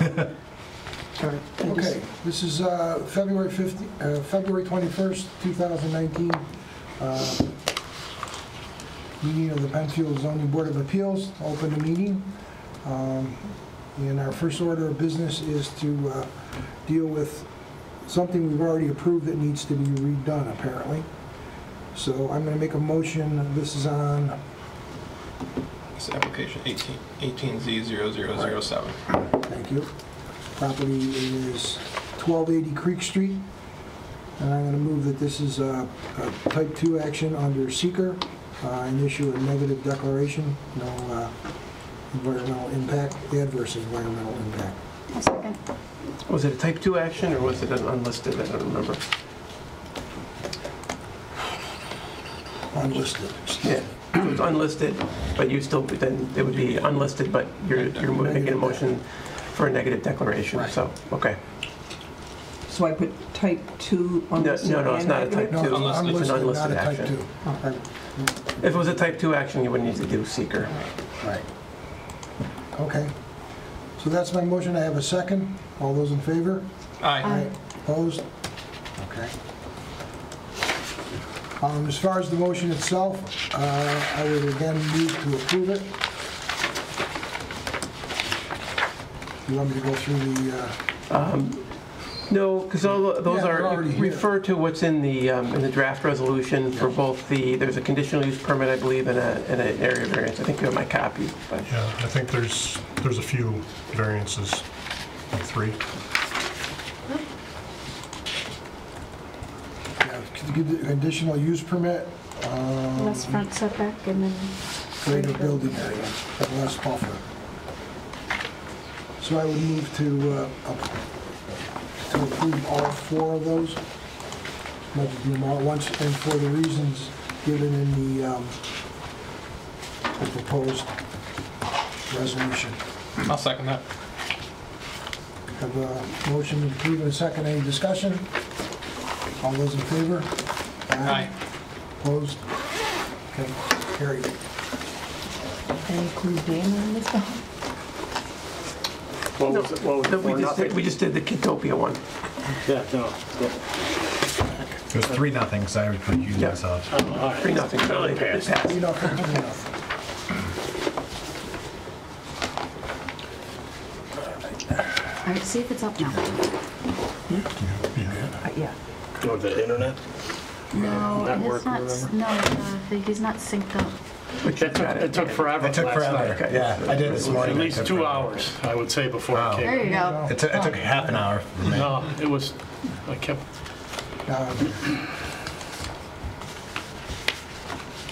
All right, I just- Okay, this is uh, February 15, uh, February 21st, 2019. uh, Meeting of the Penfield Zoning Board of Appeals, open the meeting. Um, And our first order of business is to uh, deal with something we've already approved that needs to be redone, apparently. So I'm going to make a motion, this is on, It's application 18, 18Z0007. thank you, property is 1280 Creek Street. And I'm going to move that this is a a type 2 action under seeker uh, and issue a negative declaration, no uh, environmental impact, adverse environmental impact. I'll second. Was it a type 2 action or was it an unlisted? I don't remember. Unlisted. Yeah, so it's unlisted, but you still, then it would be unlisted, but you're, you're mo- making a motion for a negative declaration, so, okay. So I put type 2 No, on no, the... no, it's not a type No, two. it's Unlisted. It's an unlisted, not a unlisted type action. 2. Right, If it was a type 2 action, you wouldn't need to do seeker. Right. Okay. So that's my motion, I have a second. All those in favor? Aye. Opposed? Okay. Um, As far as the motion itself, uh, I would again move to approve it. You want me to go through the, uh, No, because all those Yeah, they're are, already here. refer to what's in the, um, in the draft resolution for both the, there's a conditional use permit, I believe, and a, and an area variance. I think you have my copy, but, Yeah, I think there's, there's a few variances, like three. yeah, to give the conditional use permit, um, Less front setback and then... greater building area, but less buffer. So I would move to uh, up- to approve all four of those. Not to do them all at once, and for the reasons given in the um, the proposed resolution. I'll second that. Have a motion to approve and a second. Any discussion? All those in favor? Opposed? Okay, carried. Include Dan in this one? What was it, what was No, it, we four, just, did- we nothing? just did the Kitopia one. Yeah, no, yeah. It was three nothing, because I was confused Yeah. myself. All right. Three, nothing, so it it passed. You know, you know. All right, see if it's up now. Uh, Yeah. Go to the internet? No, That it's work, not, remember? no, uh, he's not synced up. But you've It took- got it took forever It took last night. forever, Okay. yeah, I did it this morning. At it least took two forever. hours, I would say, before Wow. it There came. you go. It took, it took half an hour for me. No, it was, I kept, Um,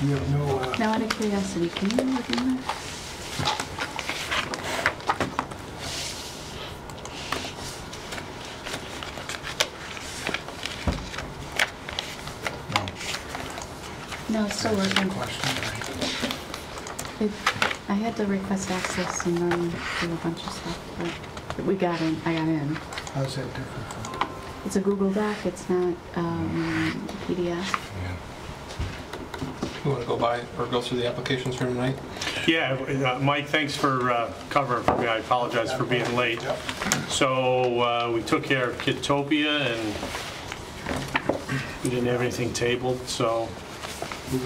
You have no, uh, Now, out of curiosity, can you look in there? No, it's still working. question. It- I had to request access and then do a bunch of stuff, but we got in, I got in. How's that different from? It's a Google Doc, it's not um, PDF. You want to go by or go through the applications for tonight? yeah, uh, Mike, thanks for uh, covering for me, I apologize for being late. Yep. So uh, we took care of Kitopia and we didn't have anything tabled, so,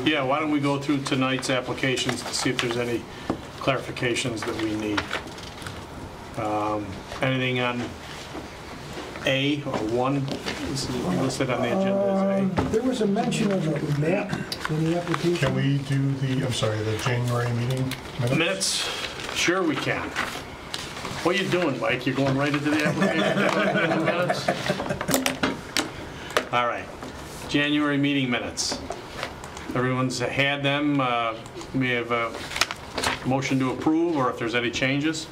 yeah, why don't we go through tonight's applications to see if there's any clarifications that we need? Um, Anything on A or 1 This is listed on the agenda Um, There was a mention of a map in the application. Can we do the, I'm sorry, the January meeting as A? minutes? Minutes? Sure we can. What are you doing, Mike? You're going right into the application? Minutes? All right. January meeting minutes. Everyone's had them. Uh, We have a motion to approve, or if there's any changes.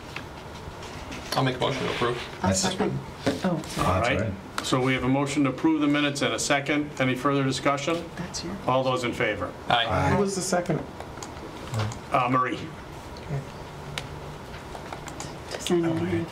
I'll make a motion to approve. I'll That's- second. Oh, sorry. That's All right. right. So we have a motion to approve the minutes and a second. Any further discussion? That's your. All those in favor? Aye. Who was the second? Uh, Marie? Just sign it.